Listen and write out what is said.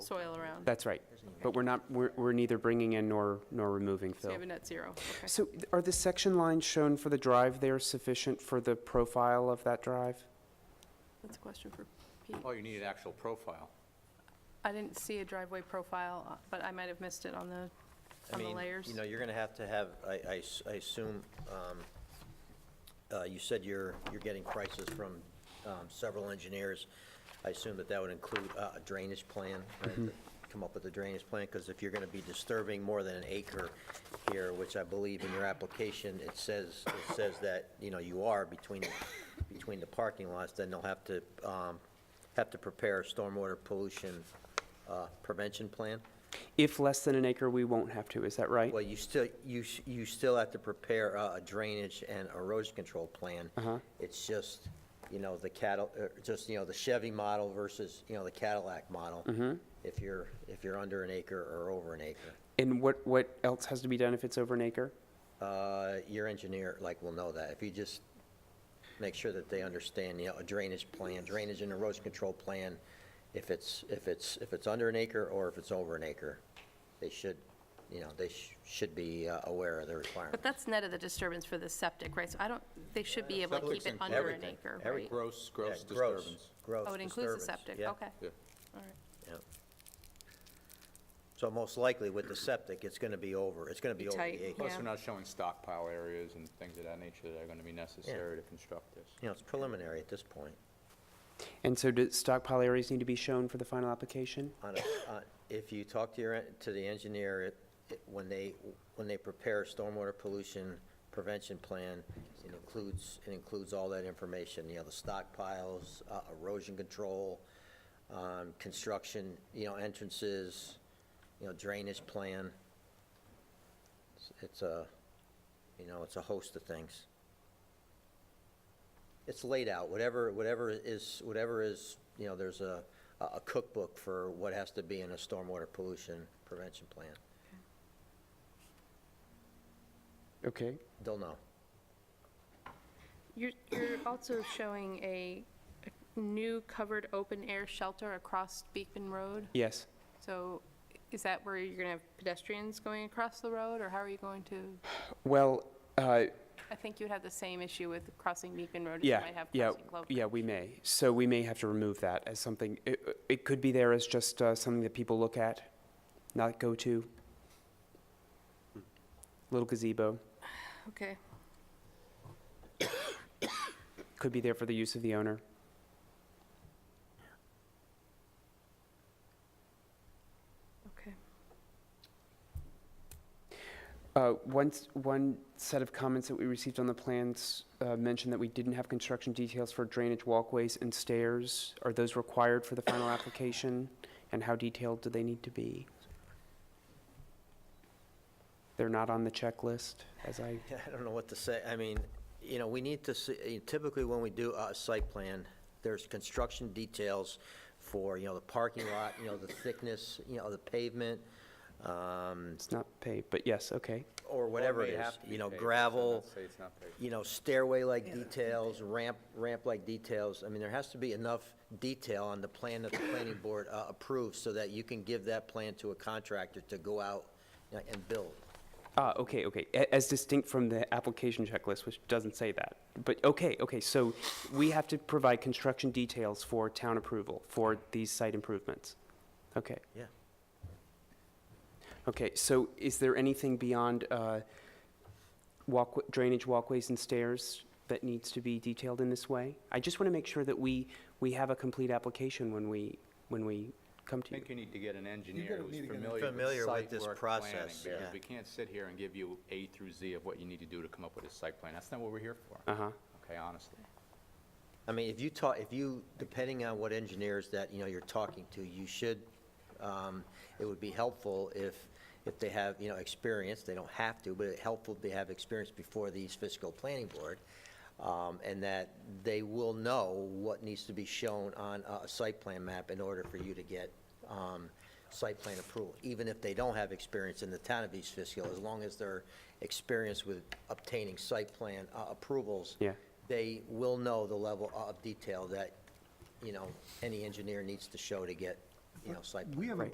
soil around. That's right. But we're not, we're we're neither bringing in nor, nor removing So you fill. have a net zero. Okay. So th- are the section lines shown for the drive there sufficient for the profile of that drive? That's a question for Pete. Oh, you need an actual profile. I didn't see a driveway profile, uh, but I might have missed it on the, I on the mean, layers. You know, you're gonna have to have, I, I s- I assume, um, uh, you said you're, you're getting prices from, um, several engineers. I assume that that would include uh, a drainage plan, right? Mm-hmm. Come up with a drainage plan, because if you're gonna be disturbing more than an acre here, which I believe in your application, it says, it says that, you know, you are between, between the parking lots, then they'll have to, um, have to prepare a stormwater pollution, uh, prevention plan? If less than an acre, we won't have to, is that right? Well, you still, you, sh- you still have to prepare uh, a drainage and erosion control plan. It's just, you know, the cattle, uh, just, you know, the Chevy model versus, you know, the Cadillac model. If you're, if you're under an acre or over an acre. And what, what else has to be done if it's over an acre? Uh, Your engineer, like, will know that. If you just make sure that they understand, you know, a drainage plan, drainage and erosion control plan, if it's, if it's, if it's under an acre or if it's over an acre, they should, you know, they sh- should be uh, aware of the requirement. But that's net of the disturbance for the septic, right? So I don't, they should be able to keep Septic's it included. under an Uh, Everything, acre, every- right? Gross, gross Yeah, gross, disturbance. Gross disturbance. Oh, it includes the septic, okay, yeah, all right. Yeah. yeah. So most likely with the septic, it's going to be over, it's going to be Be over the tight, acre. Plus, Yeah. we're not showing stockpile areas and things of that nature that are going to be necessary to construct this. You know, it's preliminary at this point. And so do stockpile areas need to be shown for the final application? On a- on- If you talk to your, en- to the engineer, it- it- when they, when they prepare a stormwater pollution prevention plan, it includes, it includes all that information, you know, the stockpiles, uh, erosion control, um, construction, you know, entrances, you know, drainage plan. It's- It's a, you know, it's a host of things. It's laid out, whatever, whatever is, whatever is, you know, there's a, a cookbook for what has to be in a stormwater pollution prevention plan. Okay. They'll know. You're, you're also showing a a new covered open-air shelter across Beekman Road. Yes. So is that where you're going to have pedestrians going across the road, or how are you going to? Well, uh, I think you'd have the same issue with crossing Beekman Road as you yeah, might have yeah, crossing Glover. yeah, we may. So we may have to remove that as something, it, it could be there as just uh, something that people look at, not go to. Little gazebo, Okay, could be there for the use of the owner. okay. Uh, Once, one set of comments that we received on the plans uh, mentioned that we didn't have construction details for drainage walkways and stairs. Are those required for the final application? And how detailed do they need to be? They're not on the checklist, as I, Yeah, I don't know what to say. I mean, you know, we need to see, typically when we do a site plan, there's construction details for, you know, the parking lot, you know, the thickness, you know, the pavement, um, it's not paid, but yes, okay. or whatever it Well, may is, have to be you know, paved, so gravel, let's say it's not paved. you know, stairway-like details, ramp, ramp-like details. I mean, there has to be enough detail on the plan that the planning board uh, approves so that you can give that plan to a contractor to go out you know, and build. Ah, okay, okay, A- as distinct from the application checklist, which doesn't say that. But, okay, okay, so we have to provide construction details for town approval for these site improvements. Okay. Yeah. Okay, so is there anything beyond uh, walk, drainage walkways and stairs that needs to be detailed in this way? I just want to make sure that we, we have a complete application when we, when we come I to you. think you need to get an engineer who's familiar Familiar with with this site work planning. process, yeah. Because we can't sit here and give you A through Z of what you need to do to come up with a site plan. That's not what we're here for, Uh-huh, okay, honestly. I mean, if you talk, if you, depending on what engineers that, you know, you're talking to, you should, um, it would be helpful if, if they have, you know, experience, they don't have to, but it helpful to have experience before the East Fiscal Planning Board, um, and that they will know what needs to be shown on a a site plan map in order for you to get um, site plan approval, even if they don't have experience in the town of East Fiscal, as long as they're experienced with obtaining site plan uh, approvals yeah. they will know the level of detail that, you know, any engineer needs to show to get, you know, site plan. We have a Right.